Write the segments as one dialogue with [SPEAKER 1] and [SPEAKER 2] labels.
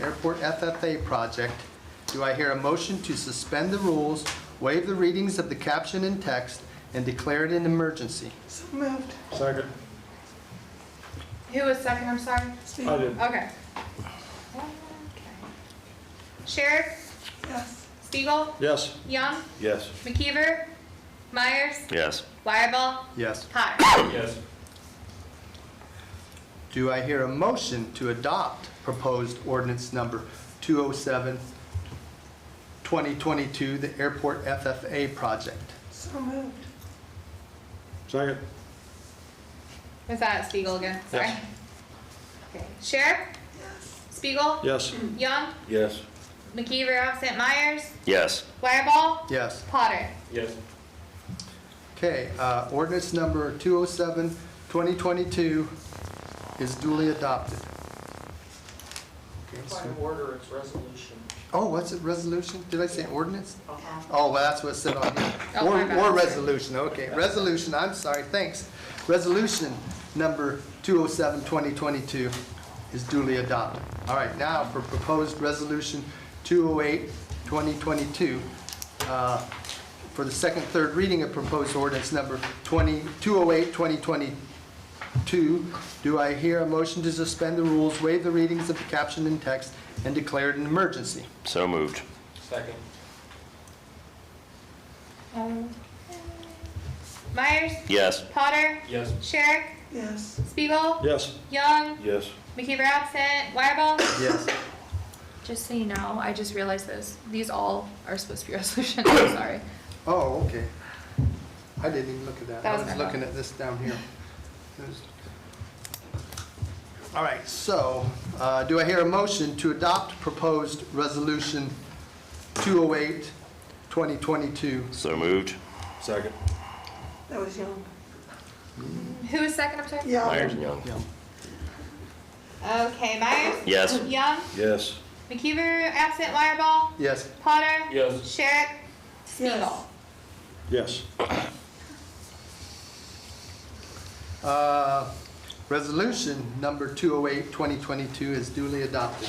[SPEAKER 1] Airport FFA project. Do I hear a motion to suspend the rules, waive the readings of the caption and text, and declare it an emergency?
[SPEAKER 2] So moved.
[SPEAKER 3] Second.
[SPEAKER 4] Who was second, I'm sorry?
[SPEAKER 3] I did.
[SPEAKER 4] Okay. Sheriff,
[SPEAKER 2] Yes.
[SPEAKER 4] Spiegel,
[SPEAKER 3] Yes.
[SPEAKER 4] Young,
[SPEAKER 3] Yes.
[SPEAKER 4] McKeever, Myers,
[SPEAKER 5] Yes.
[SPEAKER 4] Wireball,
[SPEAKER 1] Yes.
[SPEAKER 4] Potter.
[SPEAKER 3] Yes.
[SPEAKER 1] Do I hear a motion to adopt proposed ordinance number 207, 2022, the airport FFA project?
[SPEAKER 2] So moved.
[SPEAKER 3] Second.
[SPEAKER 4] Was that Spiegel again? Sorry.
[SPEAKER 3] Yes.
[SPEAKER 4] Okay. Sheriff,
[SPEAKER 2] Yes.
[SPEAKER 4] Spiegel,
[SPEAKER 3] Yes.
[SPEAKER 4] Young,
[SPEAKER 3] Yes.
[SPEAKER 4] McKeever, absent Myers,
[SPEAKER 5] Yes.
[SPEAKER 4] Wireball,
[SPEAKER 1] Yes.
[SPEAKER 4] Potter.
[SPEAKER 3] Yes.
[SPEAKER 1] Okay, uh, ordinance number 207, 2022 is duly adopted. Okay,
[SPEAKER 6] By
[SPEAKER 1] so-
[SPEAKER 6] order, it's resolution.
[SPEAKER 1] Oh, what's it, resolution? Did I say ordinance? Oh, well, that's what it said on here.
[SPEAKER 4] Oh,
[SPEAKER 1] Or,
[SPEAKER 4] my bad.
[SPEAKER 1] or resolution, okay. Resolution, I'm sorry, thanks. Resolution number 207, 2022 is duly adopted. All right, now for proposed resolution 208, 2022, uh, for the second, third reading of proposed ordinance number 20, 208, 2022, do I hear a motion to suspend the rules, waive the readings of the caption and text, and declare it an emergency?
[SPEAKER 5] So moved.
[SPEAKER 6] Second.
[SPEAKER 4] Myers,
[SPEAKER 5] Yes.
[SPEAKER 4] Potter,
[SPEAKER 6] Yes.
[SPEAKER 4] Sheriff,
[SPEAKER 2] Yes.
[SPEAKER 4] Spiegel,
[SPEAKER 3] Yes.
[SPEAKER 4] Young,
[SPEAKER 3] Yes.
[SPEAKER 4] McKeever, absent Wireball.
[SPEAKER 1] Yes.
[SPEAKER 7] Just so you know, I just realized this. These all are supposed to be resolutions. I'm sorry.
[SPEAKER 1] Oh, okay. I didn't even look at that.
[SPEAKER 4] That
[SPEAKER 1] I
[SPEAKER 4] was
[SPEAKER 1] was
[SPEAKER 4] my
[SPEAKER 1] looking
[SPEAKER 4] fault.
[SPEAKER 1] at this down here. All right, so uh, do I hear a motion to adopt proposed resolution 208, 2022?
[SPEAKER 5] So moved.
[SPEAKER 3] Second.
[SPEAKER 2] That was young.
[SPEAKER 4] Who was second, I'm sorry?
[SPEAKER 5] Myers and Young.
[SPEAKER 4] Okay, Myers,
[SPEAKER 5] Yes.
[SPEAKER 4] Young,
[SPEAKER 3] Yes.
[SPEAKER 4] McKeever, absent Wireball,
[SPEAKER 1] Yes,
[SPEAKER 4] Potter,
[SPEAKER 6] Yes.
[SPEAKER 4] Sherrick, Spiegel.
[SPEAKER 3] Yes.
[SPEAKER 1] uh, resolution number 208, 2022 is duly adopted.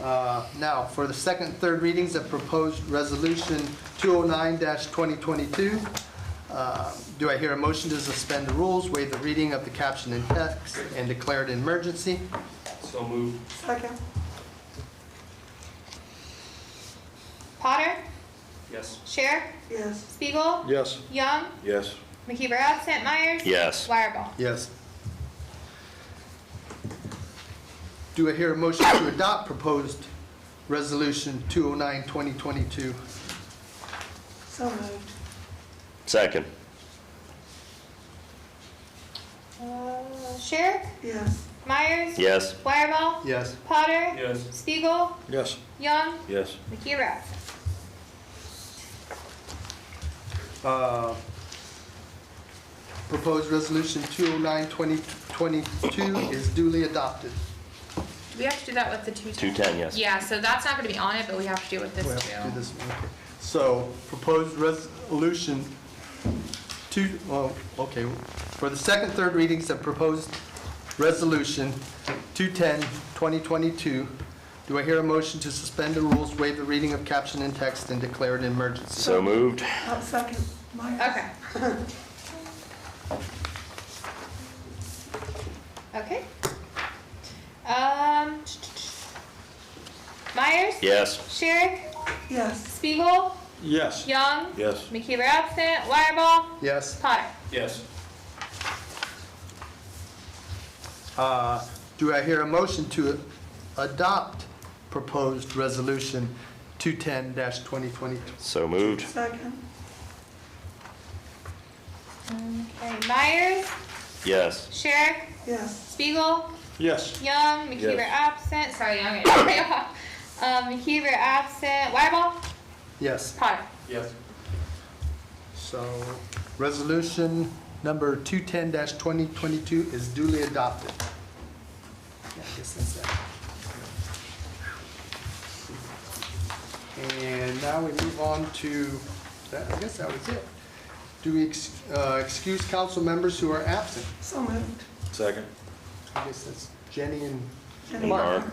[SPEAKER 1] Uh, Now, for the second, and third readings of proposed resolution 209-2022, uh, do I hear a motion to suspend the rules, waive the reading of the caption and text, and declare it an emergency?
[SPEAKER 6] So moved.
[SPEAKER 2] Second.
[SPEAKER 4] Potter,
[SPEAKER 6] Yes.
[SPEAKER 4] Sherrick,
[SPEAKER 2] Yes.
[SPEAKER 4] Spiegel,
[SPEAKER 3] Yes.
[SPEAKER 4] Young,
[SPEAKER 3] Yes.
[SPEAKER 4] McKeever, absent Myers,
[SPEAKER 5] Yes.
[SPEAKER 4] Wireball.
[SPEAKER 1] Yes. Do I hear a motion to adopt proposed resolution 209-2022?
[SPEAKER 2] So moved.
[SPEAKER 5] Second.
[SPEAKER 4] Uh, Sherrick,
[SPEAKER 2] Yes.
[SPEAKER 4] Myers,
[SPEAKER 5] Yes.
[SPEAKER 4] Wireball,
[SPEAKER 1] Yes.
[SPEAKER 4] Potter,
[SPEAKER 6] Yes.
[SPEAKER 4] Spiegel,
[SPEAKER 3] Yes.
[SPEAKER 4] Young,
[SPEAKER 3] Yes.
[SPEAKER 4] McKeever, absent.
[SPEAKER 1] Uh, Proposed resolution 209-2022 is duly adopted.
[SPEAKER 7] Do we have to do that with the two ten?
[SPEAKER 5] 210, yes.
[SPEAKER 7] Yeah, so that's not gonna be on it, but we have to do it with
[SPEAKER 1] We
[SPEAKER 7] this
[SPEAKER 1] have to do
[SPEAKER 7] too.
[SPEAKER 1] this one, okay. So proposed resolution two, well, okay, for the second, third readings of proposed resolution 210, 2022, do I hear a motion to suspend the rules, waive the reading of caption and text, and declare an emergency?
[SPEAKER 5] So moved.
[SPEAKER 2] I'll uh, second. Myers.
[SPEAKER 4] Okay. Okay. Um. Myers,
[SPEAKER 5] Yes.
[SPEAKER 4] Sherrick,
[SPEAKER 2] Yes.
[SPEAKER 4] Spiegel,
[SPEAKER 3] Yes.
[SPEAKER 4] Young,
[SPEAKER 3] Yes.
[SPEAKER 4] McKeever absent, Wireball,
[SPEAKER 1] Yes.
[SPEAKER 4] Potter.
[SPEAKER 6] Yes.
[SPEAKER 1] Uh, Do I hear a motion to adopt proposed resolution 210-2022?
[SPEAKER 5] So moved.
[SPEAKER 2] Second.
[SPEAKER 4] Okay, Myers,
[SPEAKER 5] Yes.
[SPEAKER 4] Sherrick,
[SPEAKER 2] Yes.
[SPEAKER 4] Spiegel,
[SPEAKER 3] Yes.
[SPEAKER 4] Young, McKeever absent, sorry, Young, um, McKeever absent, Wireball,
[SPEAKER 1] Yes.
[SPEAKER 4] Potter.
[SPEAKER 6] Yes.
[SPEAKER 1] So, resolution number 210-2022 is duly adopted. Yeah, I guess that's that. And now we move on to, that- I guess that was it. Do we ex- uh, excuse council members who are absent?
[SPEAKER 2] So moved.
[SPEAKER 3] Second.
[SPEAKER 1] I guess that's Jenny and
[SPEAKER 2] Jenny.
[SPEAKER 1] Mark.
[SPEAKER 5] Mark.